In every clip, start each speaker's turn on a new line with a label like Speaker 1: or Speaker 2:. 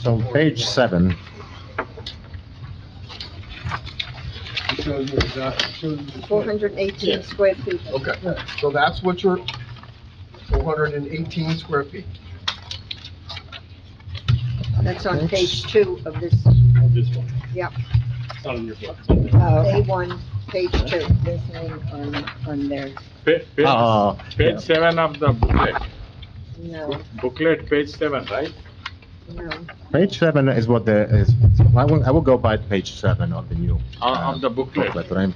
Speaker 1: So page seven,
Speaker 2: It shows you exactly, shows you the
Speaker 3: Four
Speaker 2: split.
Speaker 3: hundred and eighteen square feet.
Speaker 2: Okay, so that's what your four hundred and eighteen square feet.
Speaker 3: That's on page two of this,
Speaker 4: on this one.
Speaker 3: Yep.
Speaker 4: It's not in your book. it's on the-
Speaker 5: Oh,
Speaker 3: A one, page two. There's name on, on there.
Speaker 4: Pa- pa-
Speaker 1: uh,
Speaker 4: Page seven of the booklet,
Speaker 3: No,
Speaker 4: booklet, page seven, right?
Speaker 3: no.
Speaker 1: page seven is what the, is, I will, I will go by page seven of the new.
Speaker 4: Uh, Of the booklet.
Speaker 1: booklet, right?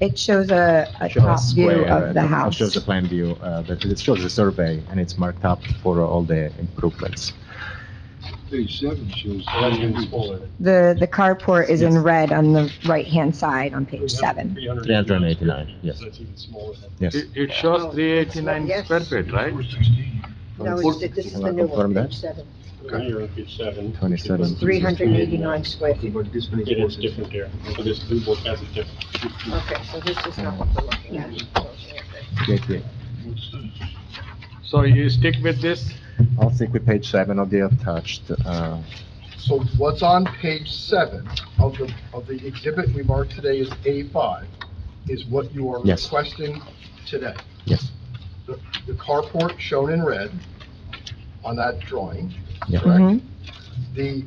Speaker 5: It shows a, a
Speaker 1: Shows
Speaker 5: top view
Speaker 1: square, uh,
Speaker 5: of the
Speaker 1: it
Speaker 5: house.
Speaker 1: Shows the plan view, uh, but it shows the survey and it's marked up for all the improvements.
Speaker 2: Page seven shows.
Speaker 5: The, the carport is in
Speaker 1: Yes.
Speaker 5: red on the right-hand side on page seven.
Speaker 1: Three hundred and eighty-nine, yes,
Speaker 4: That's even smaller.
Speaker 1: yes.
Speaker 6: It it shows three eighty-nine
Speaker 3: Oh, Yes.
Speaker 6: square feet, right?
Speaker 3: No, it's, th- this is the new one, page seven.
Speaker 2: Okay.
Speaker 4: Here on page seven.
Speaker 1: Twenty-seven.
Speaker 3: It's three hundred and eighty-nine square feet.
Speaker 2: But this one
Speaker 4: It is
Speaker 2: is.
Speaker 4: different here, so this blue book has a different.
Speaker 3: Okay, so this is not what we're looking at.
Speaker 1: Yeah, yeah.
Speaker 6: So you stick with this?
Speaker 1: I'll stick with page seven of the attached, uh,
Speaker 2: So what's on page seven of the, of the exhibit we marked today is A five, is what you are
Speaker 1: Yes.
Speaker 2: requesting today.
Speaker 1: yes,
Speaker 2: The the carport shown in red on that drawing,
Speaker 1: yeah,
Speaker 5: Mhm.
Speaker 2: the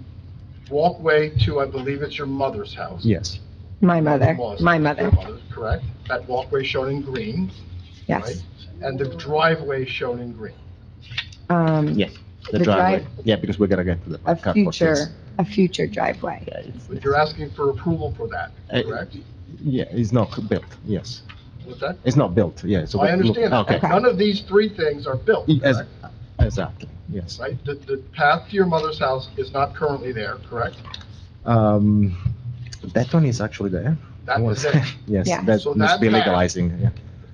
Speaker 2: walkway to, I believe it's your mother's house.
Speaker 1: yes,
Speaker 5: My mother,
Speaker 2: Your
Speaker 5: my
Speaker 2: your
Speaker 5: mother,
Speaker 2: mother's, Correct, that walkway shown in green,
Speaker 5: yes.
Speaker 2: and the driveway shown in green.
Speaker 5: Um,
Speaker 1: yes. The
Speaker 5: The
Speaker 1: driveway, yeah, because we're gonna get to the.
Speaker 5: a
Speaker 1: carport, yes.
Speaker 5: future, a future driveway.
Speaker 1: Yeah, it's-
Speaker 2: But you're asking for approval for that,
Speaker 1: Uh,
Speaker 2: correct?
Speaker 1: Yeah, it's not built, yes.
Speaker 2: What's that?
Speaker 1: It's not built, yeah, so.
Speaker 2: I understand that.
Speaker 1: Okay.
Speaker 2: None of these three things are built,
Speaker 1: Yes,
Speaker 2: correct?
Speaker 1: Exactly, yes.
Speaker 2: right? The, the path to your mother's house is not currently there, correct?
Speaker 1: Um, that one is actually there.
Speaker 2: That is it.
Speaker 1: Yes,
Speaker 5: Yeah.
Speaker 1: that
Speaker 2: So
Speaker 1: must
Speaker 2: that
Speaker 1: be
Speaker 2: path-
Speaker 1: legalizing, yeah,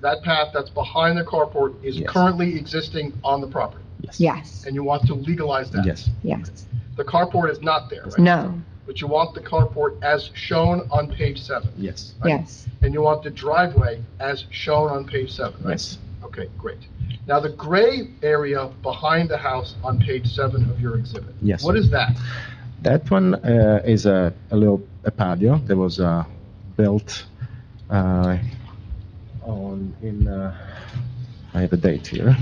Speaker 2: That path that's behind the carport is
Speaker 1: Yes.
Speaker 2: currently existing on the property,
Speaker 5: Yes,
Speaker 2: and you want to legalize that.
Speaker 1: yes,
Speaker 5: yes.
Speaker 2: The carport is not there, right?
Speaker 5: No,
Speaker 2: But you want the carport as shown on page seven,
Speaker 1: yes,
Speaker 2: Right.
Speaker 5: yes,
Speaker 2: and you want the driveway as shown on page seven, right?
Speaker 1: yes,
Speaker 2: Okay, great. Now, the gray area behind the house on page seven of your exhibit.
Speaker 1: Yes.
Speaker 2: What is that?
Speaker 1: That one uh, is a, a little a patio that was uh, built uh, on in. Uh, I have a date here.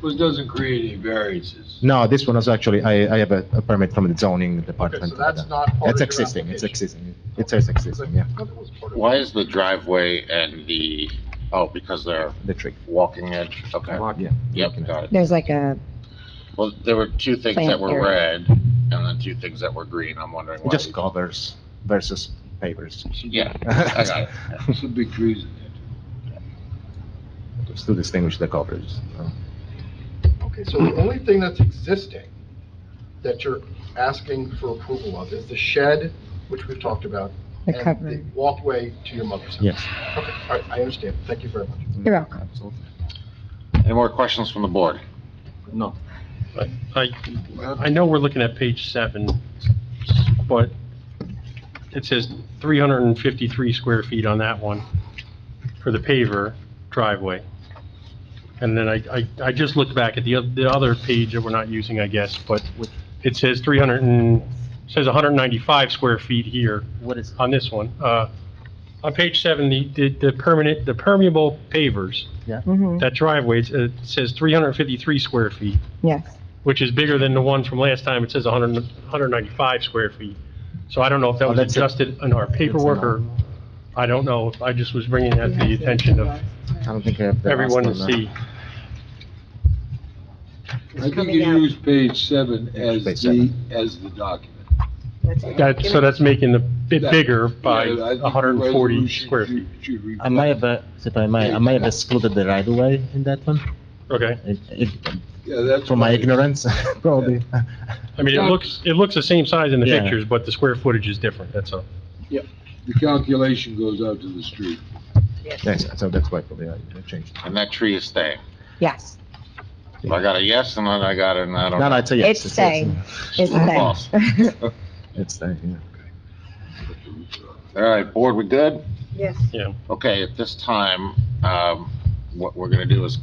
Speaker 6: Which doesn't create any variances.
Speaker 1: No, this one was actually I, I have a, a permit from the zoning department.
Speaker 2: Okay, so
Speaker 1: for
Speaker 2: that's
Speaker 1: that.
Speaker 2: not part of your
Speaker 1: It's existing. It's
Speaker 2: application.
Speaker 1: existing. It says existing. Yeah,
Speaker 2: I thought it was part of-
Speaker 7: Why is the driveway and the, oh, because they're
Speaker 1: the tree.
Speaker 7: walking edge, okay,
Speaker 1: Yeah.
Speaker 7: yep, got it.
Speaker 5: there's like a,
Speaker 7: Well, there were two things that
Speaker 5: Plant
Speaker 7: were
Speaker 5: area.
Speaker 7: red and then two things that were green, I'm wondering
Speaker 1: It
Speaker 7: why.
Speaker 1: just covers versus papers.
Speaker 7: Yeah, I got it.
Speaker 6: Some big trees in there.
Speaker 1: Just to distinguish the coverage.
Speaker 2: Okay, so the only thing that's existing that you're asking for approval of is the shed, which we've talked about,
Speaker 5: the
Speaker 2: and
Speaker 5: cover.
Speaker 2: the walkway to your mother's house.
Speaker 1: Yes.
Speaker 2: Okay, all right, I understand. Thank you very much.
Speaker 5: You're welcome.
Speaker 7: Any more questions from the board?
Speaker 8: I, I know we're looking at page seven, but it says 353 square feet on that one for the paver driveway. And then I, I, I just looked back at the, oth- the other page that we're not using, I guess, but it says 300 and, says 195 square feet here
Speaker 1: What is?
Speaker 8: on this one. Uh, On page seven, the, the- the permanent, the permeable pavers,
Speaker 1: Hmm.
Speaker 5: Mhm.
Speaker 8: that driveway, it's- it says 353 square feet
Speaker 5: Yes,
Speaker 8: which is bigger than the one from last time. It says 100 195 square feet. So I don't know if that
Speaker 1: Oh,
Speaker 8: was
Speaker 1: that's it.
Speaker 8: adjusted in our paperwork or, I don't know. I just was bringing that to the attention of
Speaker 1: I don't think I have the last
Speaker 8: everyone to
Speaker 1: one, uh,
Speaker 8: see.
Speaker 6: I think
Speaker 3: coming
Speaker 6: you
Speaker 3: out.
Speaker 6: use page seven as
Speaker 1: Page
Speaker 6: the, as the document.
Speaker 8: That, so that's making the bit
Speaker 6: That-
Speaker 8: bigger by
Speaker 6: Yeah, I think the
Speaker 8: 140
Speaker 6: resolution
Speaker 8: square feet.
Speaker 6: should- should
Speaker 1: I might
Speaker 6: reflect-
Speaker 1: have, uh, if I might, I might have excluded the right of way in that one,
Speaker 8: Okay.
Speaker 1: It- it-
Speaker 6: Yeah, that's
Speaker 1: for my
Speaker 6: why-
Speaker 1: ignorance, probably.
Speaker 8: I mean, it looks, it looks the same size in the
Speaker 1: Yeah.
Speaker 8: pictures, but the square footage is different, that's all.
Speaker 6: The calculation goes out to the street.
Speaker 1: Yes, so that's why probably I I changed.
Speaker 7: And that tree is staying.
Speaker 5: yes,
Speaker 7: So I got a yes and then I got an I don't
Speaker 1: No, no,
Speaker 7: know.
Speaker 1: it's a yes.
Speaker 5: It's staying. it's
Speaker 7: Awesome.
Speaker 5: there.
Speaker 1: It's staying, yeah.
Speaker 7: All right, board, we good?
Speaker 3: Yes.
Speaker 7: Okay, at this time, um, what we're gonna do is